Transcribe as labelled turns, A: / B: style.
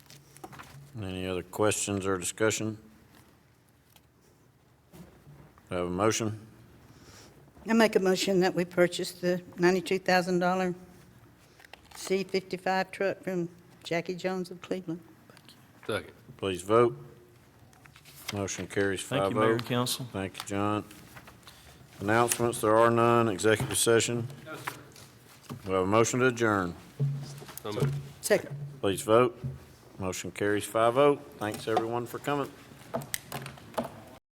A: Any other questions or discussion? Do I Have a motion?
B: I make a motion that we purchase the $92,000 C-55 truck from Jackie Jones of Cleveland.
C: Second.
A: Please vote. Motion carries
D: Thank
A: five
D: you, Mayor
A: oh.
D: and Council.
A: Thank you, John. Announcements, there are none. Executive session? We have a motion to adjourn.
C: So moved.
B: Second.
A: Please vote. Motion carries five oh. Thanks, everyone, for coming.